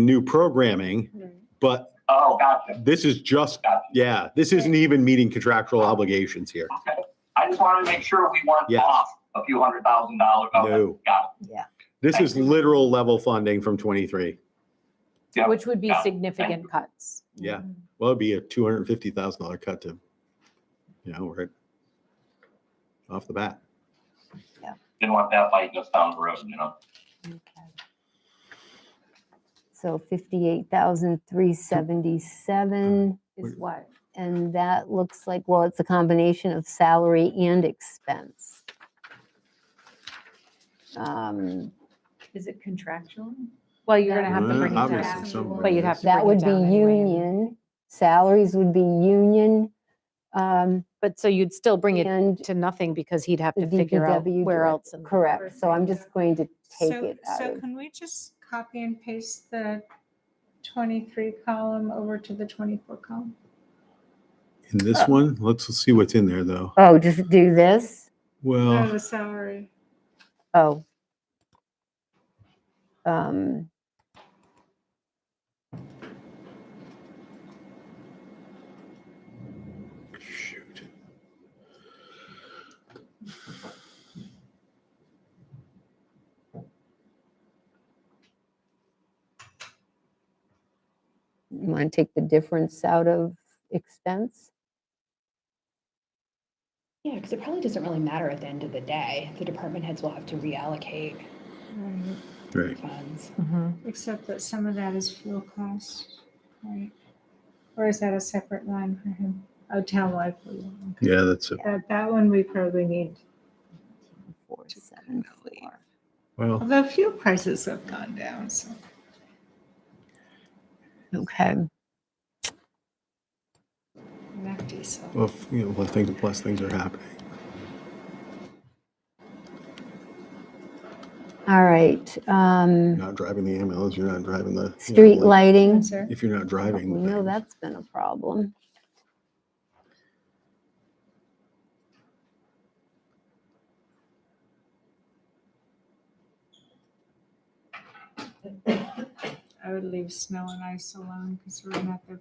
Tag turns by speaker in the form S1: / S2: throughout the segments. S1: new programming, but
S2: Oh, gotcha.
S1: this is just,
S2: Gotcha.
S1: yeah, this isn't even meeting contractual obligations here.
S2: Okay. I just wanted to make sure we weren't
S1: Yes.
S2: off a few hundred thousand dollars. Okay,
S1: No.
S2: Got
S1: This is literal level funding from 23.
S2: it. Yeah.
S3: Which would be
S2: Yeah.
S3: significant cuts.
S1: Yeah. Well, it'd be a $250,000 cut to, you know, right off the bat.
S2: Didn't want that fight goes down the road, you know?
S4: Okay. So fifty-eight thousand three seventy-seven,
S3: Is what?
S4: and that looks like, well, it's a combination of salary and expense. Um,
S5: Is it contractual?
S3: Well, you're gonna have to
S1: Well,
S3: bring it down.
S1: Uh, obviously somewhere
S3: But you'd
S1: it
S3: have
S1: is.
S3: to
S4: That
S3: bring
S4: would
S3: it
S4: be
S3: down anyway.
S4: union, salaries would be union, um,
S3: But so you'd still bring it
S4: and
S3: to nothing because he'd have
S4: the
S3: to figure out
S4: DPW.
S3: where
S4: director.
S3: else. in-
S4: Correct, so I'm just going to take
S6: So,
S4: it out
S6: so
S4: of,
S6: can we just copy and paste the 23 column over to the 24 column?
S1: In this one, let's see what's in there though.
S4: oh, just do this?
S6: Oh,
S1: Well,
S6: the salary.
S4: Oh. Um.
S1: shoot.
S4: You want to take the difference out of expense?
S7: Yeah, because it probably doesn't really matter at the end of the day. The department heads will have to reallocate
S6: Right.
S3: Mm.
S1: Right.
S7: funds.
S3: Mhm.
S6: Except that some of that is fuel costs, right? Or is that a separate line for him? Oh, town life. we-
S1: Yeah, that's, it.
S6: That, that one we probably need.
S4: Four, seven,
S6: Definitely.
S4: four.
S1: well,
S6: Although fuel prices have gone down, so.
S4: Okay,
S6: Not diesel.
S1: well, you know, well, things, plus things are happening.
S4: all right.
S1: You're
S4: Um,
S1: not driving the ambulance, you're not driving the. you know,
S4: street
S1: like,
S4: lighting,
S6: Sir?
S1: If you're not
S4: we
S1: driving.
S4: know
S1: things.
S4: that's been a problem.
S6: I would leave snow and ice alone because we're not the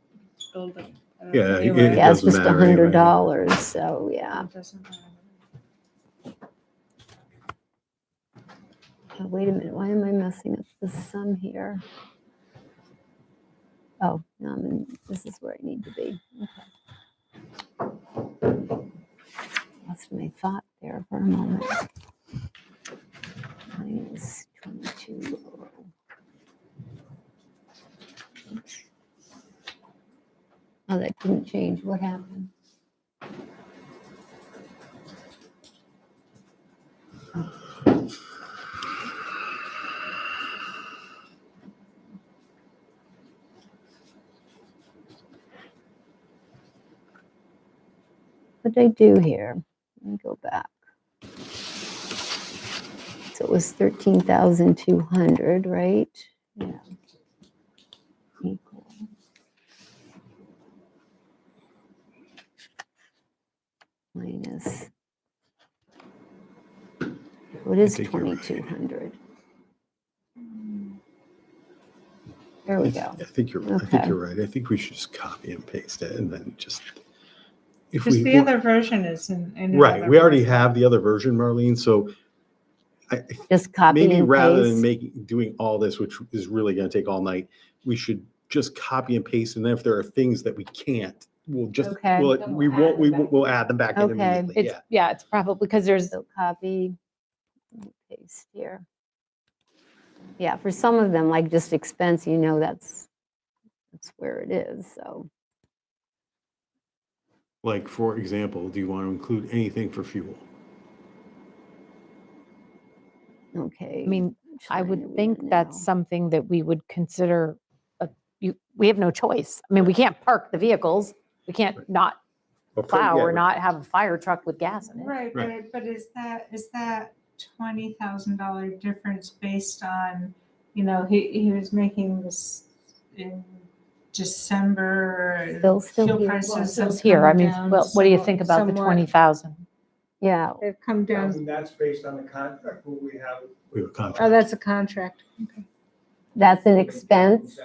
S6: building. uh,
S1: Yeah, it-
S6: anyway.
S1: it
S4: Yeah, it's
S1: doesn't
S4: just a
S1: matter anyway.
S4: hundred dollars, so yeah.
S6: It doesn't matter.
S4: Uh, Wait a minute, why am I messing up the sum here? Oh, no, I'm in, this is where I need to be. Okay. Lost my thought there for a moment. Minus 22. Oops. Oh, that didn't change. What happened? What did I do here? Let me go back. So it was thirteen thousand two hundred, right? Yeah. Equal. Minus. What is
S1: think you're right.
S4: twenty-two hundred? There we go.
S1: I think you're, I think
S4: Okay.
S1: you're right. I think we should just copy and paste it and then just. if
S6: Because
S1: we
S6: the
S1: were-
S6: other version is in. in
S1: Right,
S6: another
S1: we already
S6: version.
S1: have the other version, Marlene, so I,
S4: Just copy and
S1: maybe
S4: paste.
S1: rather than making, doing all this, which is really gonna take all night, we should just copy and paste, and then if there are things that we can't, we'll just,
S4: Okay.
S1: we'll, we won't, we will we'll add them back in
S4: Okay.
S1: immediately,
S3: It's,
S1: yeah.
S3: yeah, it's probably, because there's,
S4: So copy, and paste here. Yeah, for some of them, like just expense, you know, that's, that's where it is, so.
S1: Like, for example, do you want to include anything for fuel?
S4: Okay.
S3: I mean, I would think that's
S4: some.
S3: something that we would consider, a- you, we have no choice. I mean, we can't park the vehicles. We can't not
S1: Of course,
S3: plow
S1: yeah,
S3: or not have a fire truck with gas in it.
S6: Right,
S1: Right.
S6: but, but is that, is that twenty thousand dollar difference based on, you know, he, he was making this in December.
S4: Still- still
S6: fuel
S4: here.
S6: prices have
S3: Those here, I
S6: come
S3: mean,
S6: down
S3: well, what do you
S6: somewhat-
S3: think about the
S6: somewhat.
S3: 20,000?
S4: Yeah,
S6: They've come down,
S8: And that's based on the contract who we have.
S1: We have a contract.
S6: oh, that's a contract.
S4: That's an expense.